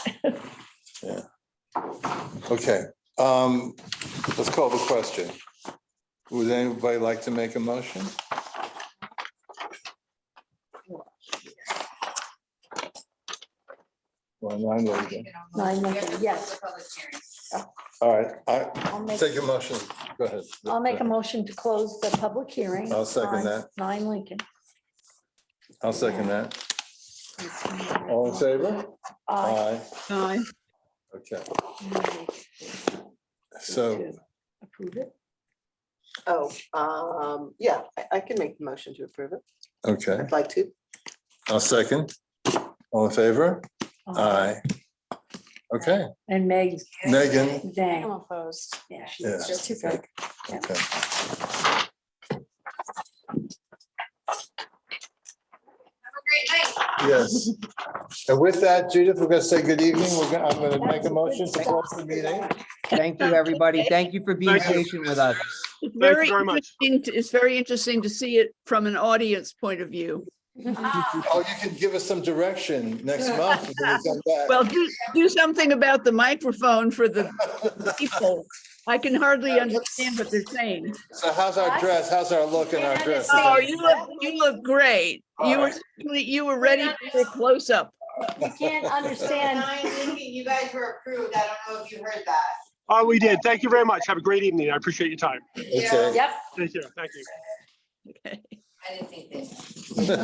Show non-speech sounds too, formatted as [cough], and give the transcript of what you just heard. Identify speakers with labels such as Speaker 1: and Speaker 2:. Speaker 1: Okay, um, let's call the question. Would anybody like to make a motion? Well, nine, what do you do?
Speaker 2: Nine, nothing, yes.
Speaker 1: All right, I,
Speaker 2: I'll make,
Speaker 1: take your motion, go ahead.
Speaker 2: I'll make a motion to close the public hearing.
Speaker 1: I'll second
Speaker 2: on
Speaker 1: that.
Speaker 2: Nine Lincoln.
Speaker 1: I'll second that. All in favor?
Speaker 2: Aye.
Speaker 1: Aye.
Speaker 3: Aye.
Speaker 1: Okay, so,
Speaker 2: To Approve it.
Speaker 4: Oh, um, yeah, I, I can make the motion to approve it.
Speaker 1: okay,
Speaker 4: I'd like to.
Speaker 1: I'll second. All in favor? Aye. Okay,
Speaker 2: And Meg
Speaker 1: Megan,
Speaker 2: Zhang.
Speaker 5: I'm opposed.
Speaker 2: Yeah.
Speaker 1: Yeah.
Speaker 5: It's just too big.
Speaker 1: okay. Yes. And with that, Judith, we're gonna say good evening. We're gonna, I'm gonna make a motion to close the meeting.
Speaker 6: Thank you, everybody. Thank you for being
Speaker 3: Thank you.
Speaker 6: patient with us.
Speaker 7: Thank
Speaker 3: It's
Speaker 7: you
Speaker 3: very
Speaker 7: very much.
Speaker 3: interesting, to- it's very interesting to see it from an audience point of view.
Speaker 1: Oh, you can give us some direction next month. when we come back.
Speaker 3: Well, do, do something about the microphone for the people. I can hardly understand what they're saying.
Speaker 1: [laughs] So how's our dress? How's our look in our dress?
Speaker 3: Oh, you look, you look great. You were, you were ready for a close-up.
Speaker 2: You
Speaker 1: [laughs]
Speaker 2: can't understand.
Speaker 8: You guys were approved. I don't know if you heard that.
Speaker 7: Oh, we did. Thank you very much. Have a great evening. I appreciate your time.
Speaker 1: Okay.
Speaker 2: Yep.
Speaker 7: Thank you. Thank you.
Speaker 8: I didn't think they.